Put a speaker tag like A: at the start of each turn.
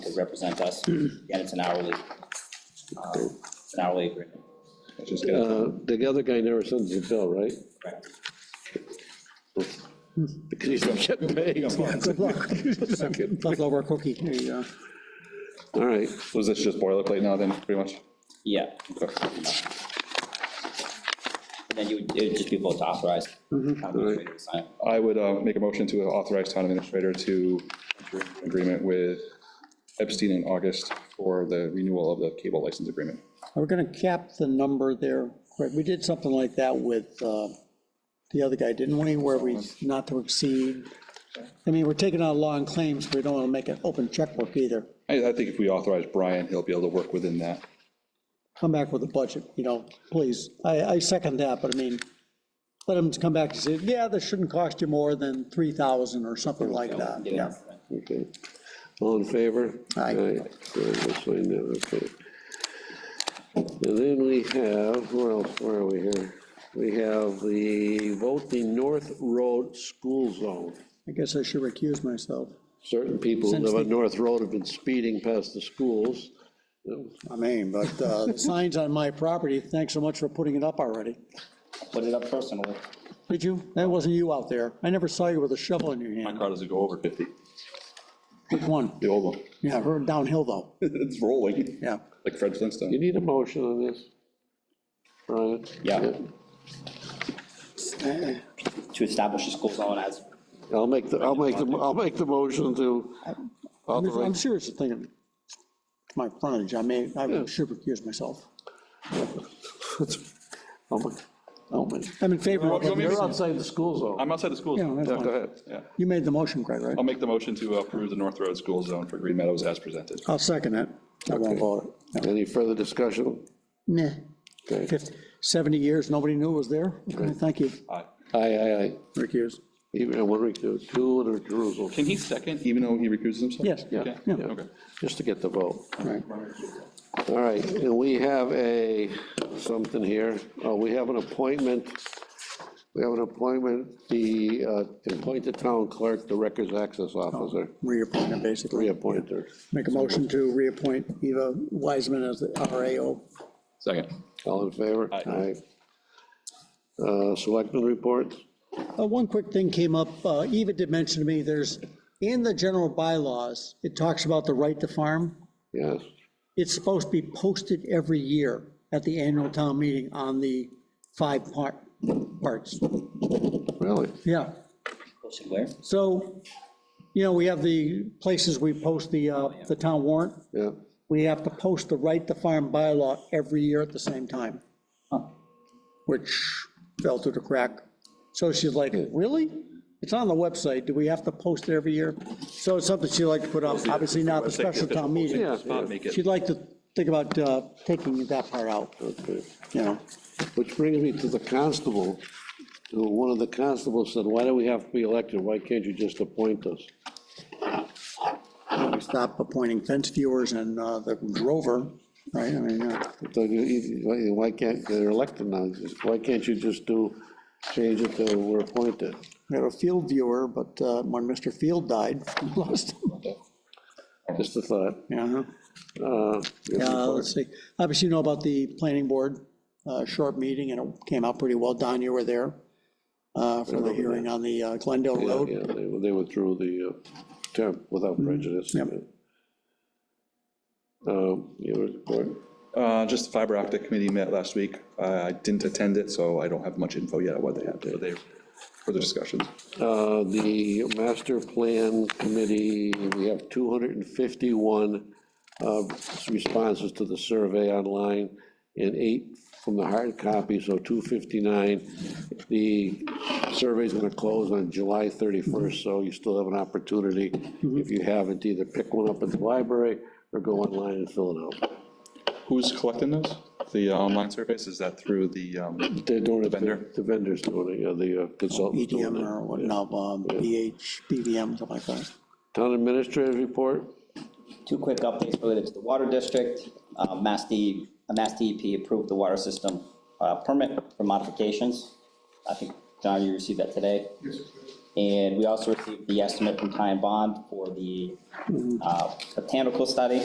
A: they represent us, and it's an hourly, uh, it's an hourly agreement.
B: Just gonna-
C: Uh, The other guy never sends a bill, right?
A: Correct.
C: Because he's not getting paid.
D: Good luck. Leftover cookie. There you go.
C: All right,
B: Was this just boilerplate now then, pretty much?
A: Yeah.
B: Okay.
A: And then you would, it would just be both authorized. Mm-hmm. Right.
B: I would uh, make a motion to authorize town administrator to enter into an agreement with Epstein in August for the renewal of the cable license agreement.
D: We're going to cap the number there. Right, We did something like that with uh, the other guy, didn't we, where we, not to exceed. I mean, we're taking out law and claims, but we don't want to make an open checkbook either.
B: I, I think if we authorize Brian, he'll be able to work within that.
D: Come back with a budget, you know, please. I, I second that, but I mean, let them come back and say, yeah, this shouldn't cost you more than 3,000 or something like that. Yeah.
C: okay. All in favor?
D: Aye.
C: so That's fine now, okay. And then we have, where else, where are we here? We have the vote the North Road School Zone.
D: I guess I should recuse myself.
C: Certain people who
D: Since
C: live on
D: the-
C: North Road have been speeding past the schools.
D: I mean, but uh, the signs on my property, thanks so much for putting it up already.
A: Put it up personally.
D: Did you? That wasn't you out there. I never saw you with a shovel in your
B: My
D: hand.
B: car doesn't go over 50,
D: Which one?
B: the old one.
D: Yeah, I heard downhill though.
B: It's rolling,
D: Yeah.
B: like Fred Flintstone.
C: You need a motion on this, Brian?
A: Yeah. To establish a school zone as,
C: I'll make the, I'll make the, I'll make the motion to
D: I'm I'm
C: authorize,
D: serious thinking, my frontage, I may, I
C: Yeah.
D: should recuse myself.
C: I'll make- I'll make-
D: I'm in favor of,
B: You want me to-
D: it.
C: you're outside the school zone.
B: I'm outside the school
D: Yeah,
B: zone.
D: that's
C: Yeah,
D: fine.
C: go ahead.
B: Yeah.
D: you made the motion, Craig, right?
B: I'll make the motion to approve the North Road School Zone for Green Meadows as presented.
D: I'll second it. I won't vote it.
C: Any further discussion?
D: Nah,
C: Okay.
D: 50, 70 years, nobody knew it was there. Okay, Thank you,
B: Aye.
C: Aye, aye, aye.
D: recuse.
C: Even, one recuse, two in recusal,
B: Can he second, even though he recuses himself?
D: Yes,
C: yeah,
D: yeah.
C: yeah,
B: Okay.
C: just to get the vote.
D: Right.
C: All right, and we have a, something here, Uh, we have an appointment, we have an appointment, the, uh, to appoint the town clerk, the records access officer,
D: Reappointment, basically.
C: reappoint her.
D: Make a motion to reappoint Eva Wiseman as the RAO.
B: Second.
C: All in favor?
B: Aye.
C: Aye. Uh, Selectmen reports?
D: Uh, One quick thing came up, uh, Eva did mention to me, there's, in the general bylaws, it talks about the right to farm.
C: Yes,
D: It's supposed to be posted every year at the annual town meeting on the five part, parts.
C: really?
D: Yeah,
A: posted where?
D: so, you know, we have the places we post the, uh, the town warrant.
C: Yeah,
D: We have to post the right to farm bylaw every year at the same time,
A: Huh.
D: which fell through the crack. So she's like, really? It's on the website, do we have to post it every year? So it's something she'd like to put up, obviously not the special town meeting.
C: Yeah.
B: Spot, make it.
D: She'd like to think about uh, taking that part out,
C: okay.
D: you know?
C: Which brings me to the constable, who, one of the constables said, why do we have to be elected? Why can't you just appoint us?
D: Stop appointing fence viewers and uh, the drover, right? I mean, uh,
C: So you- you- Why why can't, they're elected now, just- why can't you just do, change it to we're appointed?
D: we had a field viewer, but uh, when Mr. Field died, we lost him.
C: Just a thought.
D: Yeah.
C: Uh,
D: Uh, Let's see, obviously you know about the planning board, uh, short meeting, and it came out pretty well, Don, you were there uh, for the hearing on the uh, Glendale
C: Yeah,
D: Road.
C: yeah, they they withdrew the uh, term without prejudice.
D: Yep.
C: Um, You report,
B: Uh, Just the fiber optic committee met last week. Uh, I didn't attend it, so I don't have much info yet on what they had, but they, for the discussions.
C: Uh, the master plan committee, we have 251 uh, responses to the survey online and eight from the hard copy, so 259. The survey's gonna close on July 31st, so you still have an opportunity, if you haven't, to either pick one up at the library or go online and fill it out.
B: Who's collecting those? The uh, online surveys, is that through the, um,
C: They're doing it,
B: vendor?
C: the vendor's doing it, yeah, the uh, consultant's doing
D: EDM
C: it.
D: E or what, no, um, BH, BVM, something like that.
C: Town administrator's report,
A: Two quick updates related to the water district. Uh, Mass D, uh, Mass DEP approved the water system uh, permit for modifications. I think, John, you received that today. And we also received the estimate from Ty and Bond for the uh, botanical study.